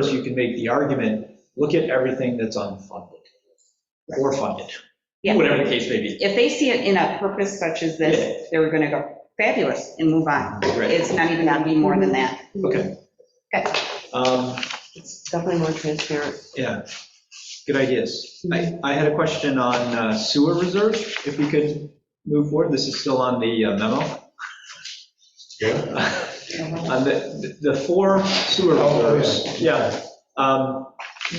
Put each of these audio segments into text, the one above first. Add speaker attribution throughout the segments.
Speaker 1: course, you can make the argument, look at everything that's unfunded or funded,
Speaker 2: Yeah.
Speaker 1: whatever the case may be.
Speaker 2: If they see it in a purpose such as this, they're going to go fabulous and move on.
Speaker 1: Right.
Speaker 2: It's not even going to be more than that.
Speaker 1: Okay.
Speaker 2: Okay.
Speaker 1: Um,
Speaker 3: It's definitely more transparent.
Speaker 1: Yeah, good ideas. I, I had a question on uh, sewer reserve, if we could move forward, this is still on the uh, memo.
Speaker 4: Yeah.
Speaker 1: On Uh, the, the four sewer
Speaker 4: Oh,
Speaker 1: reserves, yeah. Um,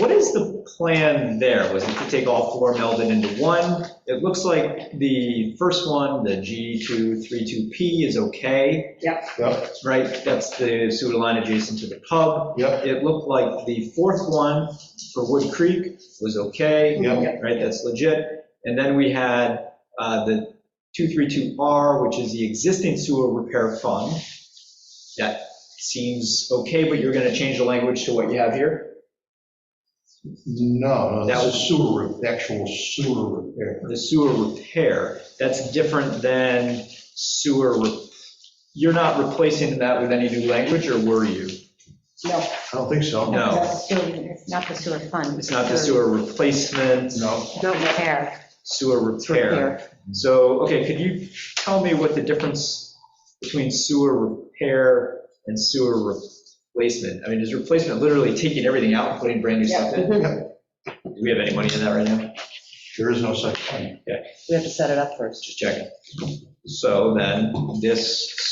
Speaker 1: What is the plan there? Was it to take all four, meld it into one? It looks like the first one, the G232P is okay,
Speaker 4: Yep,
Speaker 1: right? That's the sewer line adjacent to the pub.
Speaker 4: yep,
Speaker 1: It looked like the fourth one for Wood Creek was okay
Speaker 4: yep,
Speaker 1: right, that's legit. And then we had uh, the 232R, which is the existing sewer repair fund. That seems okay, but you're going to change the language to what you have here,
Speaker 4: no, no,
Speaker 1: That was-
Speaker 4: this is sewer, re- actual sewer repair.
Speaker 1: the sewer repair. That's different than sewer, re- you're not replacing that with any new language, or were you?
Speaker 4: I don't think so.
Speaker 1: No.
Speaker 5: It's the sewer- it's Not the sewer fund.
Speaker 1: It's not the sewer replacement,
Speaker 4: No,
Speaker 5: No repair.
Speaker 1: sewer
Speaker 5: it's
Speaker 1: repair. So, okay, could you tell me what the difference between sewer repair and sewer replacement? I mean, is replacement literally taking everything out and putting brand new stuff in? Do we have any money in that right now?
Speaker 4: there is no such thing.
Speaker 3: We have to set it up first.
Speaker 1: Just checking. So then, this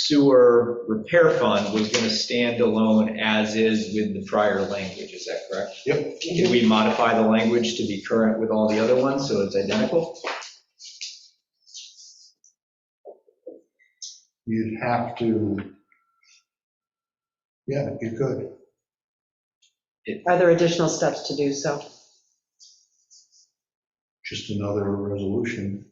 Speaker 1: sewer repair fund was going to stand alone as is with the prior language, is that correct?
Speaker 4: Yep.
Speaker 1: Did we modify the language to be current with all the other ones, so it's identical?
Speaker 4: You'd have to, yeah, you could.
Speaker 3: Are there additional steps to do so?
Speaker 4: Just another resolution.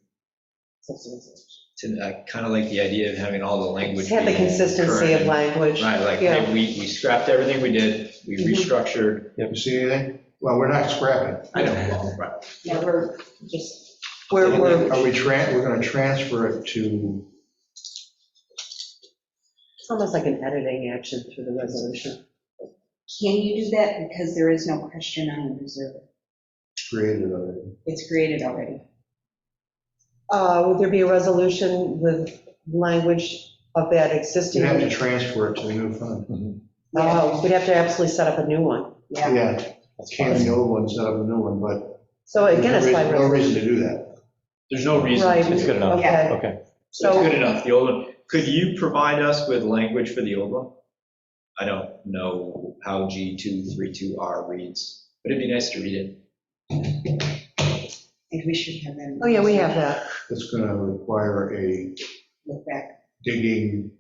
Speaker 1: Kind of uh, like the idea of having all the language.
Speaker 3: Have the
Speaker 1: be
Speaker 3: consistency
Speaker 1: current
Speaker 3: of
Speaker 1: and
Speaker 3: language.
Speaker 1: Right, like,
Speaker 3: Yeah.
Speaker 1: hey, we, we scrapped everything we did, we
Speaker 3: Mhm.
Speaker 1: restructured.
Speaker 4: You see anything? Well, we're not scrapping.
Speaker 1: I know, right.
Speaker 5: Yeah, we're just,
Speaker 3: Where we're,
Speaker 4: Are we tran, we're gonna transfer it to,
Speaker 3: it's almost like an editing action through the resolution.
Speaker 2: Can you do that? Because there is no question on the reserve.
Speaker 4: create it already?
Speaker 2: It's created already.
Speaker 3: Uh, Would there be a resolution with language of that existing?
Speaker 4: You'd have to transfer it to the new fund.
Speaker 1: Mm-hmm.
Speaker 3: Oh, we'd have to absolutely set up a new one.
Speaker 2: Yeah.
Speaker 4: Yeah, can the old one set up a new one, but
Speaker 3: So again, it's by
Speaker 4: there's no
Speaker 3: resolution.
Speaker 4: reason to do that.
Speaker 1: There's no reason
Speaker 3: Right.
Speaker 1: to.
Speaker 6: It's good enough,
Speaker 3: Okay.
Speaker 6: okay.
Speaker 1: It's good
Speaker 3: So,
Speaker 1: enough, the old one. Could you provide us with language for the old one? I don't know how G232R reads, but it'd be nice to read it.
Speaker 2: And we should have them.
Speaker 3: oh yeah, we have that.
Speaker 4: It's gonna require a
Speaker 2: Look back.
Speaker 4: digging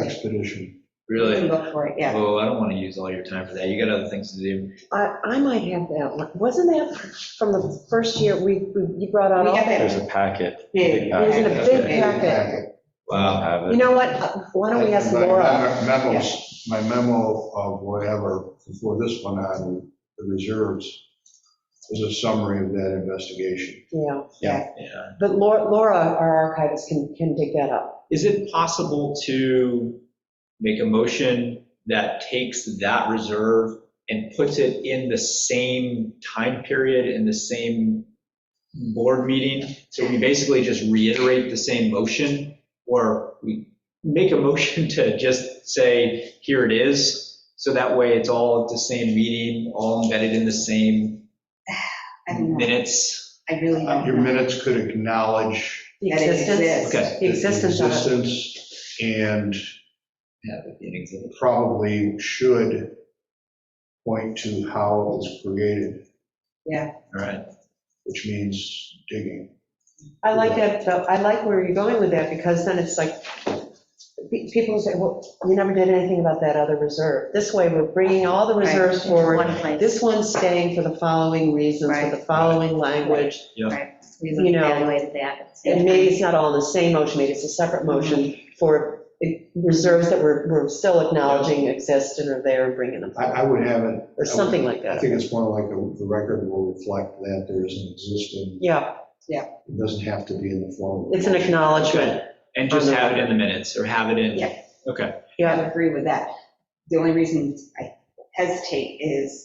Speaker 4: expedition.
Speaker 2: We can
Speaker 1: Really?
Speaker 2: Look for it, yeah.
Speaker 1: Oh, I don't want to use all your time for that, you got other things to do.
Speaker 3: I, I might have that. one. Wasn't that from the first year we, we- you brought out
Speaker 2: We
Speaker 3: all?
Speaker 2: have
Speaker 6: There's
Speaker 2: it
Speaker 6: a packet.
Speaker 2: big.
Speaker 6: It was in a
Speaker 3: big packet.
Speaker 1: Wow,
Speaker 6: Have
Speaker 3: You
Speaker 6: it.
Speaker 3: know what? Why don't we ask
Speaker 4: My- my
Speaker 3: Laura?
Speaker 4: Memos, my memo of whatever, before this one on the reserves, is a summary of that investigation.
Speaker 3: Yeah.
Speaker 1: yeah.
Speaker 3: But Laura, Laura, our archivist, can, can dig that up.
Speaker 1: Is it possible to make a motion that takes that reserve and puts it in the same time period, in the same board meeting? So we basically just reiterate the same motion? Or we make a motion to just say, here it is? So that way it's all at the same meeting, all embedded in the same
Speaker 2: I don't know.
Speaker 1: minutes?
Speaker 2: I really don't.
Speaker 4: Your
Speaker 2: know.
Speaker 4: minutes could acknowledge
Speaker 3: The
Speaker 2: That it
Speaker 3: existence,
Speaker 2: exists.
Speaker 1: Okay.
Speaker 3: the existence of it.
Speaker 4: existence and
Speaker 1: Yeah, that'd be an example.
Speaker 4: probably should point to how it was created,
Speaker 1: All right.
Speaker 4: which means digging.
Speaker 3: I like that, though. I like where you're going with that, because then it's like, pe- people say, well, we never did anything about that other reserve. This way, we're bringing all the reserves
Speaker 5: Right,
Speaker 3: forward.
Speaker 5: One place.
Speaker 3: This one's staying for the following reasons, with the following language.
Speaker 5: Right, we
Speaker 3: you know,
Speaker 5: evaluated that. at the same
Speaker 3: And maybe
Speaker 5: time.
Speaker 3: it's not all in the same motion, maybe it's a separate
Speaker 5: Mm-hmm.
Speaker 3: motion for reserves that we're, we're still acknowledging exist and are there and bringing them
Speaker 4: I,
Speaker 3: forward,
Speaker 4: I would have it
Speaker 3: or something like
Speaker 4: I
Speaker 3: that.
Speaker 4: think it's more like the the record will reflect that there is an existing,
Speaker 3: Yeah,
Speaker 4: it doesn't have to be in the form.
Speaker 3: it's an acknowledgement.
Speaker 1: And just have it in the minutes or have it in?
Speaker 2: Oh, Yeah.
Speaker 1: Okay.
Speaker 2: I would agree with that. The only reason I hesitate is